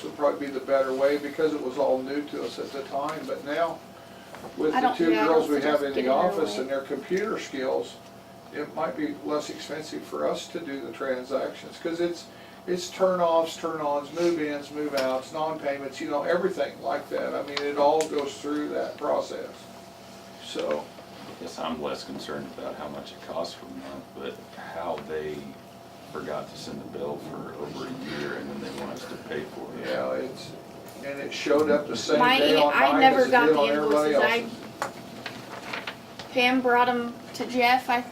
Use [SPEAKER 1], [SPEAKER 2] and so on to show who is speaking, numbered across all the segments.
[SPEAKER 1] This would probably be the better way because it was all new to us at the time, but now with
[SPEAKER 2] I
[SPEAKER 1] the
[SPEAKER 2] don't-
[SPEAKER 1] two
[SPEAKER 2] yeah, I
[SPEAKER 1] girls
[SPEAKER 2] don't
[SPEAKER 1] we have in
[SPEAKER 2] suggest
[SPEAKER 1] the
[SPEAKER 2] giving it
[SPEAKER 1] office
[SPEAKER 2] away.
[SPEAKER 1] and their computer skills, it might be less expensive for us to do the transactions, cause it's, it's turn-offs, turn-ons, move-ins, move-outs, non-payments, you know, everything like that. I mean, it all goes through that process. So,
[SPEAKER 3] Yes, I'm less concerned about how much it costs for a month, but how they forgot to send the bill for over a year and then they want us to pay for it.
[SPEAKER 1] yeah, it's, and it showed up the same
[SPEAKER 2] My
[SPEAKER 1] day
[SPEAKER 2] in-
[SPEAKER 1] on
[SPEAKER 2] I
[SPEAKER 1] mine
[SPEAKER 2] never
[SPEAKER 1] as it
[SPEAKER 2] got
[SPEAKER 1] did
[SPEAKER 2] the
[SPEAKER 1] on everybody
[SPEAKER 2] invoices. I-
[SPEAKER 1] else's.
[SPEAKER 2] Pam brought them to Jeff, I,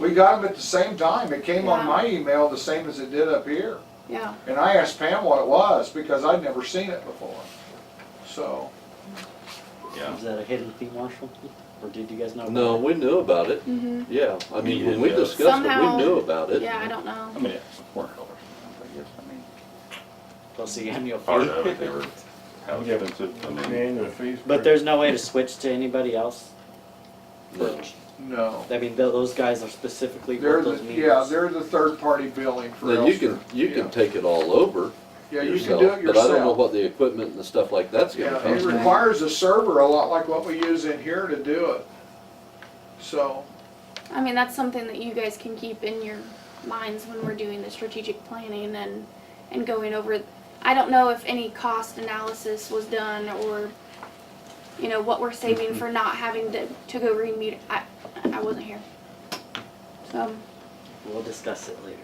[SPEAKER 1] We got them at the same time. It came on
[SPEAKER 2] Yeah.
[SPEAKER 1] my email the same as it did up here.
[SPEAKER 2] yeah,
[SPEAKER 1] And I asked Pam what it was because I'd never seen it before. So,
[SPEAKER 3] Yeah,
[SPEAKER 4] Is that a hidden fee, Marshall? Or did you guys know? about
[SPEAKER 5] No,
[SPEAKER 4] it?
[SPEAKER 5] we knew about it,
[SPEAKER 2] mhm,
[SPEAKER 5] yeah, I mean, when we
[SPEAKER 3] Yeah.
[SPEAKER 5] discussed it,
[SPEAKER 2] Somehow-
[SPEAKER 5] we knew about it.
[SPEAKER 2] yeah, I don't
[SPEAKER 3] I
[SPEAKER 2] know.
[SPEAKER 3] mean, it's four dollars a month, I guess, I mean,
[SPEAKER 4] Plus the annual
[SPEAKER 3] part of it, they
[SPEAKER 4] fee.
[SPEAKER 3] were, how expensive, I mean,
[SPEAKER 6] Annual fees.
[SPEAKER 4] But there's no way to switch to anybody else?
[SPEAKER 5] No.
[SPEAKER 1] no.
[SPEAKER 4] I mean, tho- those guys are specifically
[SPEAKER 1] They're the,
[SPEAKER 4] for those
[SPEAKER 1] yeah,
[SPEAKER 4] meetings.
[SPEAKER 1] they're the third party billing for
[SPEAKER 5] Then you can,
[SPEAKER 1] Elster.
[SPEAKER 5] you
[SPEAKER 1] Yeah.
[SPEAKER 5] can take it all over
[SPEAKER 1] Yeah, you can
[SPEAKER 5] yourself,
[SPEAKER 1] do it
[SPEAKER 5] but I don't know
[SPEAKER 1] yourself.
[SPEAKER 5] what the equipment and the stuff like that's
[SPEAKER 1] Yeah,
[SPEAKER 5] gonna
[SPEAKER 1] it
[SPEAKER 5] cost.
[SPEAKER 1] requires a server a lot like what we use in here to do it. So,
[SPEAKER 2] I mean, that's something that you guys can keep in your minds when we're doing the strategic planning and, and going over. I don't know if any cost analysis was done or, you know, what we're saving for not having to, to go re-meet, I, I wasn't here. So,
[SPEAKER 4] We'll discuss it later.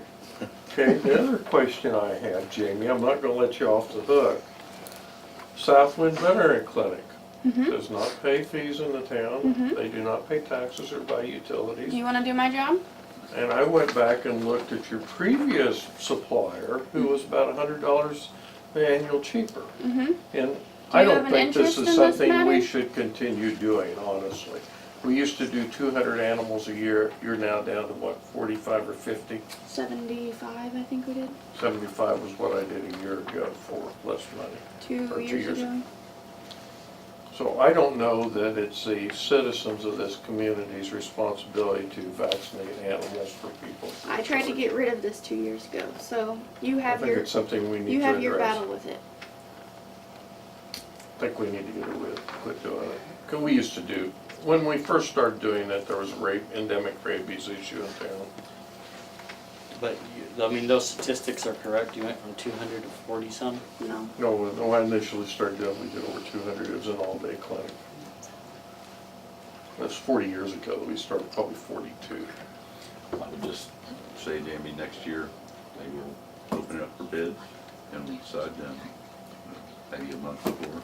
[SPEAKER 6] Okay, the other question I have, Jamie, I'm not gonna let you off the hook. Southwind Veteran Clinic
[SPEAKER 2] mhm.
[SPEAKER 6] does not pay fees in the town.
[SPEAKER 2] Mhm.
[SPEAKER 6] They do not pay taxes or buy
[SPEAKER 2] do
[SPEAKER 6] utilities.
[SPEAKER 2] you wanna do my job?
[SPEAKER 6] And I went back and looked at your previous supplier, who was about a hundred dollars annual cheaper.
[SPEAKER 2] Mm-hmm.
[SPEAKER 6] And I
[SPEAKER 2] you have
[SPEAKER 6] don't
[SPEAKER 2] an
[SPEAKER 6] think this
[SPEAKER 2] interest
[SPEAKER 6] is
[SPEAKER 2] in this
[SPEAKER 6] something
[SPEAKER 2] matter?
[SPEAKER 6] we should continue doing, honestly. We used to do two hundred animals a year. You're now down to what, forty-five or fifty?
[SPEAKER 2] Seventy-five, I think we did,
[SPEAKER 6] 75 was what I did a year ago for less money. Or
[SPEAKER 2] two
[SPEAKER 6] two
[SPEAKER 2] years
[SPEAKER 6] years
[SPEAKER 2] ago.
[SPEAKER 6] So I don't know that it's the citizens of this community's responsibility to vaccinate animals for people.
[SPEAKER 2] I tried to get rid of this two years ago, so you
[SPEAKER 6] I
[SPEAKER 2] have
[SPEAKER 6] think
[SPEAKER 2] your,
[SPEAKER 6] it's something we need
[SPEAKER 2] you
[SPEAKER 6] to
[SPEAKER 2] have your
[SPEAKER 6] address.
[SPEAKER 2] battle with it.
[SPEAKER 6] I think we need to get away, quit doing it. 'Cause we used to do, when we first started doing it, there was a rape, endemic rabies issue in town.
[SPEAKER 4] But, you- I mean, those statistics are correct. You went from two hundred to forty some?
[SPEAKER 2] No,
[SPEAKER 6] No, when I initially started doing, it, we did over 200, it was an all-day clinic. That's 40 years ago, we started probably 42.
[SPEAKER 3] I would just say, Jamie, next year, they will open it up for bids and we decide then, maybe a month before.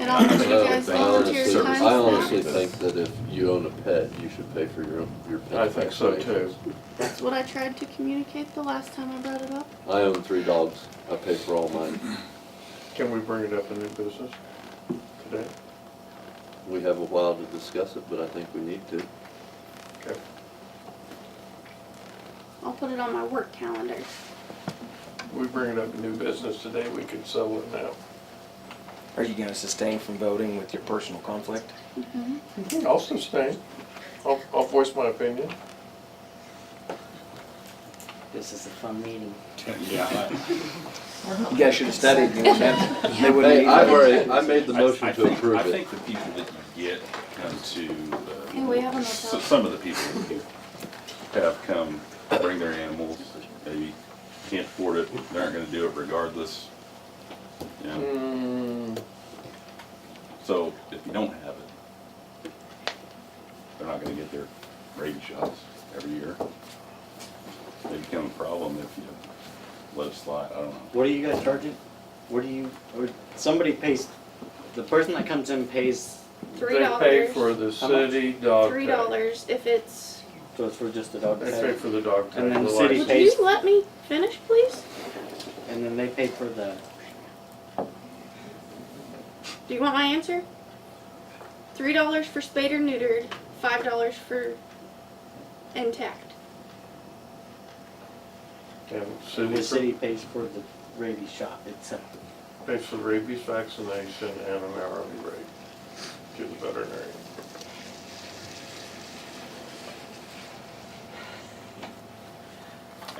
[SPEAKER 2] and I'll let you
[SPEAKER 5] I
[SPEAKER 2] guys
[SPEAKER 5] honestly-
[SPEAKER 2] volunteer
[SPEAKER 3] service
[SPEAKER 2] time.
[SPEAKER 5] Uh, I
[SPEAKER 2] for
[SPEAKER 5] honestly
[SPEAKER 2] that.
[SPEAKER 5] think that if you own a pet, you should pay for your, own your pet.
[SPEAKER 6] I think so too.
[SPEAKER 2] That's what I tried to communicate the last time I brought it up.
[SPEAKER 5] I own three dogs, I pay for all mine,
[SPEAKER 6] Can we bring it up in new business today?
[SPEAKER 5] we have a while to discuss it, but I think we need to.
[SPEAKER 6] Okay.
[SPEAKER 2] I'll put it on my work calendar.
[SPEAKER 6] We bring it up in new business today, we could settle it now.
[SPEAKER 7] Are you gonna sustain from voting with your personal conflict?
[SPEAKER 6] Mm-hmm. Hmm, I'll sustain. I'll, I'll voice my opinion.
[SPEAKER 4] This is a fun meeting.
[SPEAKER 7] You guys should've studied, you wouldn't have, they wouldn't
[SPEAKER 5] Hey,
[SPEAKER 7] need
[SPEAKER 5] I've
[SPEAKER 7] it.
[SPEAKER 5] already, I made the
[SPEAKER 3] I- I
[SPEAKER 5] motion to
[SPEAKER 3] think-
[SPEAKER 5] approve
[SPEAKER 3] I
[SPEAKER 5] it.
[SPEAKER 3] think the people that you get come to. uh,
[SPEAKER 2] Hey, we have enough
[SPEAKER 3] s-
[SPEAKER 2] help.
[SPEAKER 3] Some of the people that you have come, bring their animals, maybe can't afford it, they aren't gonna do it regardless. You know,
[SPEAKER 6] Hmm,
[SPEAKER 3] so if you don't have it, they're not gonna get their rabies shots every year. They become a problem if you let it slide, I don't know.
[SPEAKER 4] What are you guys charging? What do you, or, somebody pays, the person that comes in pays,
[SPEAKER 2] Three
[SPEAKER 6] They pay
[SPEAKER 2] dollars,
[SPEAKER 6] for the
[SPEAKER 4] How much?
[SPEAKER 6] city dog
[SPEAKER 2] three
[SPEAKER 6] tag.
[SPEAKER 2] dollars if it's,
[SPEAKER 4] so it's for just the dog
[SPEAKER 6] They pay
[SPEAKER 4] tag?
[SPEAKER 6] for the dog tag.
[SPEAKER 4] And then the
[SPEAKER 6] license.
[SPEAKER 4] He
[SPEAKER 2] would
[SPEAKER 4] pays-
[SPEAKER 2] you let me finish, please?
[SPEAKER 4] And then they pay for the,
[SPEAKER 2] Do you want my answer? Three dollars for spayed or neutered, five dollars for intact.
[SPEAKER 6] And the
[SPEAKER 4] the
[SPEAKER 6] city
[SPEAKER 4] city pays for the rabies shot itself.
[SPEAKER 6] pays for rabies vaccination and an hourly rate to the veterinarian.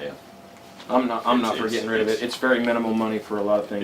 [SPEAKER 3] Yeah.
[SPEAKER 7] I'm not, I'm not for getting rid of it, it's very minimal money for a lot of things.